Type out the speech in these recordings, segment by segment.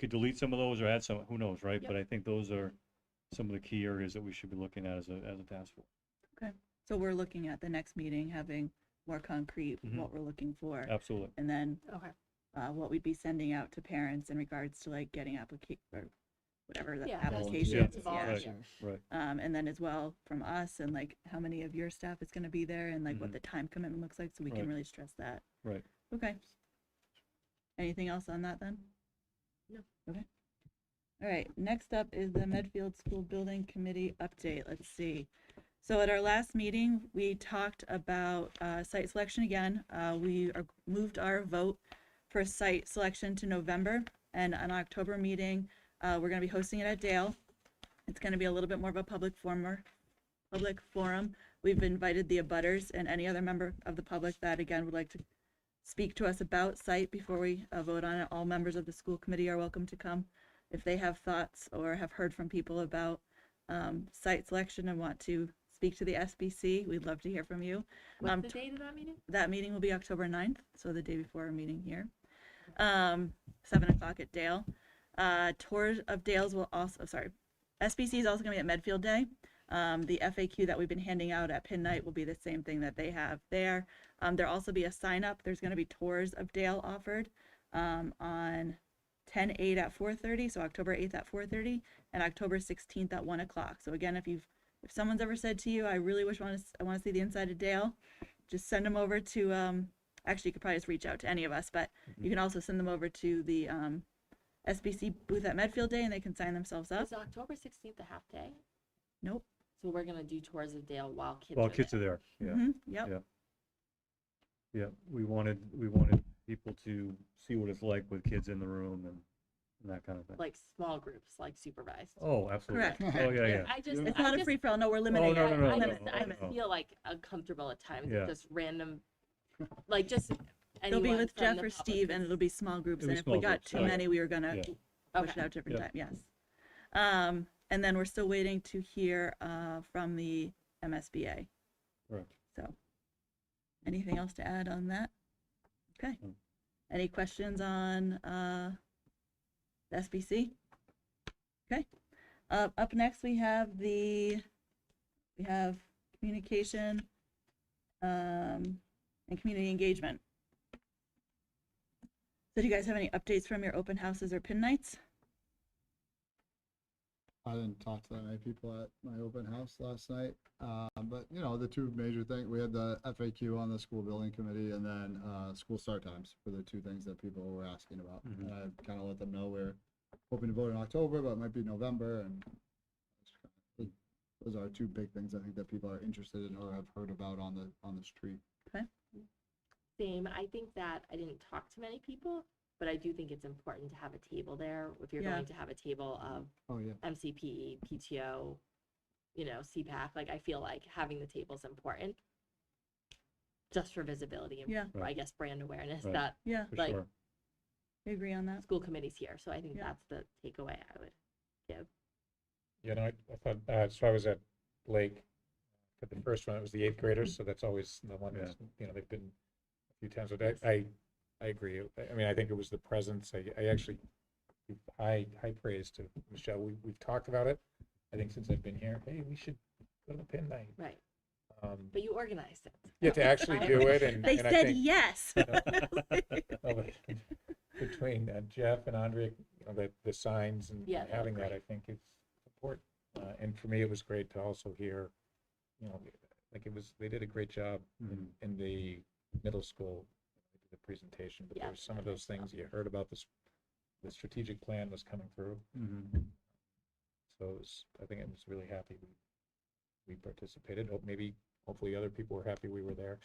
could delete some of those or add some, who knows, right? Yep. But I think those are some of the key areas that we should be looking at as a, as a task force. So we're looking at the next meeting, having more concrete, Mhm. what we're looking for. Absolutely. And then Okay. uh, what we'd be sending out to parents in regards to like getting applica- or whatever the Yeah, that's- applications. it's Yeah. volunteer. Right. Um, and then as well from us and like how many of your staff is gonna be there and like Mhm. what the time commitment looks like, so we Right. can really stress that. Right. Okay. Anything else on that then? No. Okay. All right, next up is the Medfield School Building Committee update. Let's see. So at our last meeting, we talked about uh, site selection again. Uh, We are- moved our vote for site selection to November. And on October meeting, uh, we're going to be hosting it at Dale. It's going to be a little bit more of a public former, public forum. We've invited the abutters and any other member of the public that again would like to speak to us about site before we uh, vote on it. All members of the school committee are welcome to come if they have thoughts or have heard from people about um, site selection and want to speak to the SBC. We'd love to hear from you. Um, What's the date of that meeting? that meeting will be October 9th, so the day before our meeting here. Um, seven o'clock at Dale. Uh, tours of Dales will also, sorry, SBC is also gonna be at Medfield Day. Um, the FAQ that we've been handing out at Pin Night will be the same thing that they have there. Um, there'll also be a sign up. There's gonna be tours of Dale offered, um, on 10-8 at four thirty, so October eighth at four thirty, and October sixteenth at one o'clock. So again, if you've, if someone's ever said to you, I really wish, wanna, s- I wanna see the inside of Dale, just send them over to um actually you could probably just reach out to any of us but you can also send them over to the um sbc booth at medfield day and they can sign themselves up Is October sixteenth a half day? nope So we're gonna do tours of Dale while kids Well, are kids there. are there. Yeah. Mhm, yep Yeah. Yeah, we wanted, we wanted people to see what it's like with kids in the room and, and that kind of thing. Like small groups, like supervised. Oh, absolutely. correct Oh, yeah, yeah. I just, it's I not a just, free for all no we're Oh, limiting no, it no, no, I no, Oh, limit, just, no, I limit. no. feel like uncomfortable at times Yeah. with just random, like just they'll be anyone with from the jeff or public steve and is- it'll be small groups It'll be and if we small got groups, too right. many we were gonna Yeah. push it Okay. out different Yeah. time yes um and then we're still waiting to hear uh from the msba Correct. So, anything else to add on that? Okay. No. Any questions on uh, the SBC? Okay. Uh, up next, we have the we have communication um, and community engagement. So, do you guys have any updates from your open houses or pin nights? I didn't talk to that many people at my open house last night, uh, but you know, the two major things, we had the FAQ on the school building committee and then, uh, school start times were the two things that people were asking about. Mhm. And I kind of let them know we're hoping to vote in October, but it might be November and those are two big things I think that people are interested in or have heard about on the, on the street. Same, I think that I didn't talk to many people, but I do think it's important to have a table there if you're Yeah. going to have a table of Oh, yeah. MCPE, PTO, you know, CPAC, like I feel like having the table's important. Just for visibility and Yeah. or I Right. guess brand awareness Right. that Yeah, For Like- sure. we agree on that. school committee's here. So I think Yeah. that's the takeaway I would give. You know, I I thought, uh, so I was at Lake for the first one, it was the eighth graders, so that's always the one Yeah. that's, you know, they've been a few times, but I, I, I agree. I- I mean, I think it was the presence, I, I actually, give high, high praise to Michelle, we, we've talked about it. I think since I've been here, hey, we should go to the pin night. Right. Um, But you organized it. Yeah, to actually I- do it and. They and I said think- yes. of it Oh, between uh, Jeff and Andrea, you know, the, the signs and Yeah, that was having that, great. I think is important. Uh, and for me, it was great to also hear, you know, like it was, they did a great job Mm-hmm. in, Mm-hmm. in the middle school, the presentation, but Yeah, there were some of that those was awesome. things you heard about this, the strategic plan was coming through. Mhm. So it was, I think I was really happy we, we participated. Hope maybe, hopefully other people were happy we were there.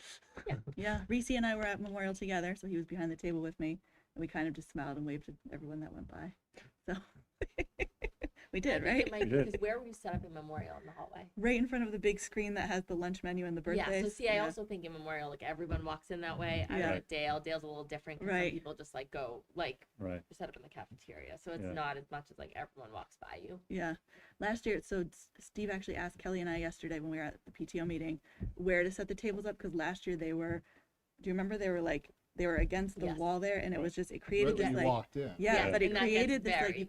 Yeah, Reese and I were at Memorial together, so he was behind the table with me, and we kind of just smiled and waved to everyone that went by. So we did, right? You did. Because where were you set up in Memorial in the hallway? Right in front of the big screen that has the lunch menu and the birthdays. Yeah, so see, I also think in Memorial, like everyone walks in that way. I Yeah. yeah. at Dale. Dale's a little different. 'cause some Right. People just like go like Right. set up in the cafeteria, so it's Yeah. not as much as like everyone walks by you. Yeah. Last year, so S- Steve actually asked Kelly and I yesterday when we were at the PTO meeting where to set the tables up because last year they were, do you remember they were like they were against the Yes. wall there and it Right. was just, it created Right this when you like, walked in. yeah, Yeah. but it And that gets created this like, very- you